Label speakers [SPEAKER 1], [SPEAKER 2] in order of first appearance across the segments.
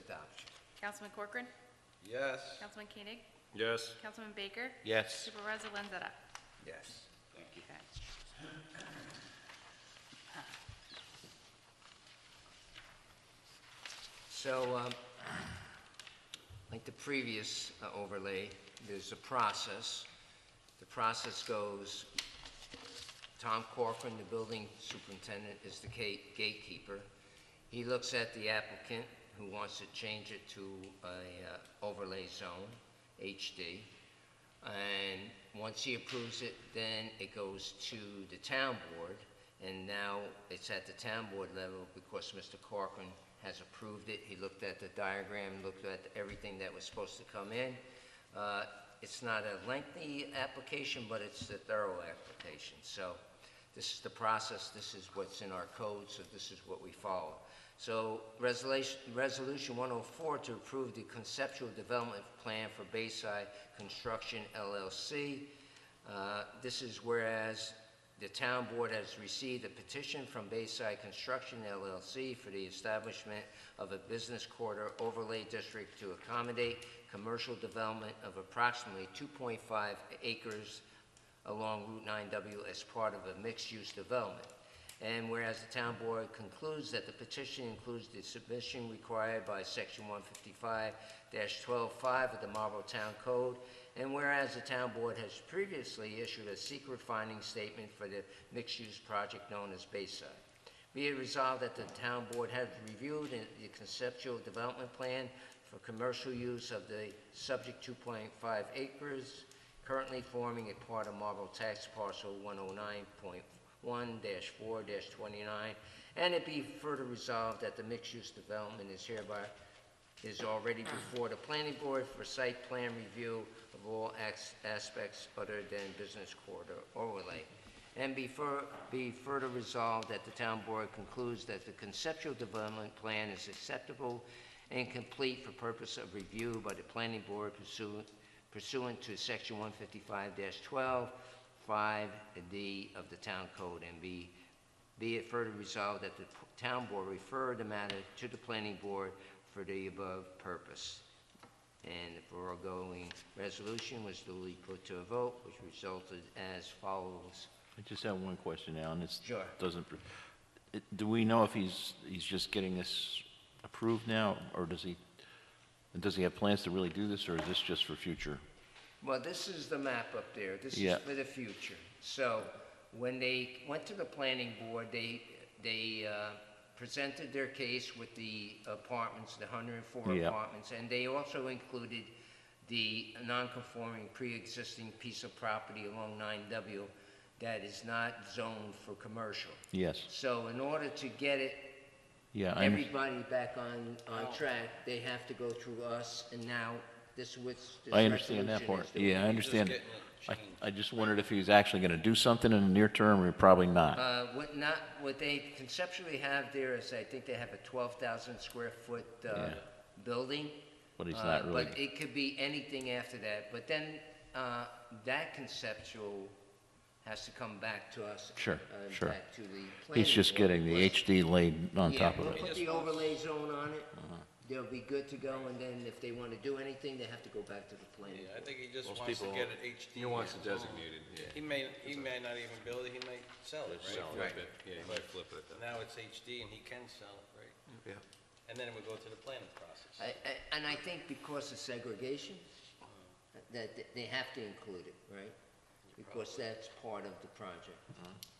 [SPEAKER 1] adoption.
[SPEAKER 2] Councilman Corcoran?
[SPEAKER 3] Yes.
[SPEAKER 2] Councilman Koenig?
[SPEAKER 4] Yes.
[SPEAKER 2] Councilman Baker?
[SPEAKER 3] Yes.
[SPEAKER 2] Supervisor Lanzetta?
[SPEAKER 1] Yes.
[SPEAKER 2] Okay.
[SPEAKER 1] So, um, like the previous uh, overlay, there's a process. The process goes, Tom Corcoran, the building superintendent, is the ga- gatekeeper. He looks at the applicant who wants to change it to a uh, overlay zone, HD. And once he approves it, then it goes to the town board, and now it's at the town board level because Mr. Corcoran has approved it. He looked at the diagram, looked at everything that was supposed to come in. Uh, It's not a lengthy application, but it's a thorough application. So this is the process, this is what's in our code, so this is what we follow. So resolution, resolution 104 to approve the conceptual development plan for Bayside Construction LLC. Uh, This is whereas the town board has received a petition from Bayside Construction LLC for the establishment of a business quarter overlay district to accommodate commercial development of approximately 2.5 acres along Route 9W as part of a mixed-use development. And whereas the town board concludes that the petition includes the submission required by section one fifty-five twelve-five of the Marlborough Town Code, and whereas the town board has previously issued a secret finding statement for the mixed-use project known as Bayside. Be it resolved that the town board has reviewed in- the conceptual development plan for commercial use of the subject 2.5 acres currently forming a part of Marlboro Tax Parcel 109.1-4-29, and it be further resolved that the mixed-use development is hereby, is already before the planning board for site plan review of all ax- aspects other than business corridor overlay. And be fur, be further resolved that the town board concludes that the conceptual development plan is acceptable and complete for purpose of review by the planning board pursuant, pursuant to section one fifty-five 12 5 D of the town code. And be, be it further resolved that the town board refer the matter to the planning board for the above purpose. And the foregoing resolution was duly put to a vote, which resulted as follows.
[SPEAKER 5] I just have one question, Alan. It's
[SPEAKER 1] Sure.
[SPEAKER 5] doesn't, it- do we know if he's, he's just getting this approved now, or does he, does he have plans to really do this, or is this just for future?
[SPEAKER 1] Well, this is the map up there. This is
[SPEAKER 5] Yeah.
[SPEAKER 1] for the future. So when they went to the planning board, they, they uh, presented their case with the apartments, the 104
[SPEAKER 5] Yeah.
[SPEAKER 1] apartments, and they also included the non-conforming pre-existing piece of property along 9W that is not zoned for commercial.
[SPEAKER 5] Yes,
[SPEAKER 1] So in order to get it
[SPEAKER 5] yeah, I, under-
[SPEAKER 1] everybody back on, on track, they have to go through us, and now this was. this
[SPEAKER 5] I understand that
[SPEAKER 1] resolution
[SPEAKER 5] part.
[SPEAKER 1] is doing.
[SPEAKER 5] Yeah, I understand.
[SPEAKER 3] getting it
[SPEAKER 5] I,
[SPEAKER 3] changed.
[SPEAKER 5] I just wondered if he's actually gonna do something in the near term, or probably not.
[SPEAKER 1] Uh, what not, what they conceptually have there is, I think they have a twelve thousand square foot, uh,
[SPEAKER 5] Yeah.
[SPEAKER 1] building.
[SPEAKER 5] But he's
[SPEAKER 1] Uh,
[SPEAKER 5] not really-
[SPEAKER 1] But it could be anything after that, but then, uh, that conceptual has to come back to us.
[SPEAKER 5] Sure,
[SPEAKER 1] uh,
[SPEAKER 5] sure.
[SPEAKER 1] Back to the planning
[SPEAKER 5] He's just
[SPEAKER 1] board
[SPEAKER 5] getting the
[SPEAKER 1] request.
[SPEAKER 5] HD laid on
[SPEAKER 1] Yeah,
[SPEAKER 5] top
[SPEAKER 1] we'll
[SPEAKER 5] of it. Uh-huh.
[SPEAKER 1] Put the overlay zone on it, they'll be good to go, and then if they wanna do anything, they have to go back to the planning.
[SPEAKER 3] Yeah, I think he just
[SPEAKER 4] Most
[SPEAKER 3] wants to
[SPEAKER 4] people-
[SPEAKER 3] get it HD.
[SPEAKER 4] he wants it
[SPEAKER 3] zone.
[SPEAKER 4] designated, yeah.
[SPEAKER 3] He may, he may not even build it, he might sell it, right?
[SPEAKER 4] Flip it, yeah, you might flip it.
[SPEAKER 3] Now it's HD and he can sell it, right?
[SPEAKER 4] Yeah.
[SPEAKER 3] And then it would go to the planning process.
[SPEAKER 1] I- I- And I think because of segregation, that that they have to include it, right? Because that's part of the project.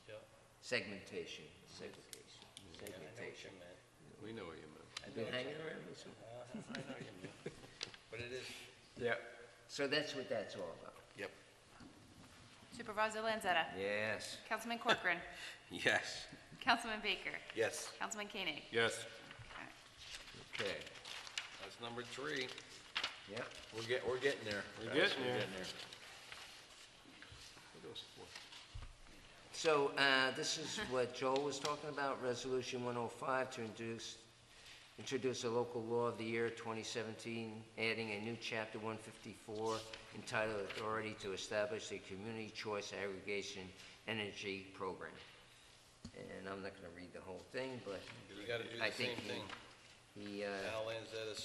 [SPEAKER 3] Yeah,
[SPEAKER 1] Segmentation, segregation,
[SPEAKER 3] I know what you
[SPEAKER 1] segmentation.
[SPEAKER 3] meant.
[SPEAKER 4] We know what you meant.
[SPEAKER 1] I've been hanging around with some.
[SPEAKER 3] Uh-huh, I know what you meant. But it is,
[SPEAKER 4] Yeah.
[SPEAKER 1] So that's what that's all about.
[SPEAKER 4] Yep.
[SPEAKER 2] Supervisor Lanzetta?
[SPEAKER 1] Yes.
[SPEAKER 2] Councilman Corcoran?
[SPEAKER 3] yes.
[SPEAKER 2] Councilman Baker?
[SPEAKER 3] Yes.
[SPEAKER 2] Councilman Koenig?
[SPEAKER 4] Yes.
[SPEAKER 1] Okay.
[SPEAKER 3] That's number three.
[SPEAKER 1] Yep.
[SPEAKER 3] We're get, we're getting there.
[SPEAKER 4] We're getting there.
[SPEAKER 1] So uh, this is what Joel was talking about, Resolution 105, to introduce, introduce a local law of the year 2017, adding a new Chapter 154 entitled Authority to Establish a Community Choice Aggregation Energy Program. And I'm not going to read the whole thing, but
[SPEAKER 3] You gotta do
[SPEAKER 1] I
[SPEAKER 3] the
[SPEAKER 1] think
[SPEAKER 3] same thing.
[SPEAKER 1] he, he, uh,
[SPEAKER 3] Al Lanzetta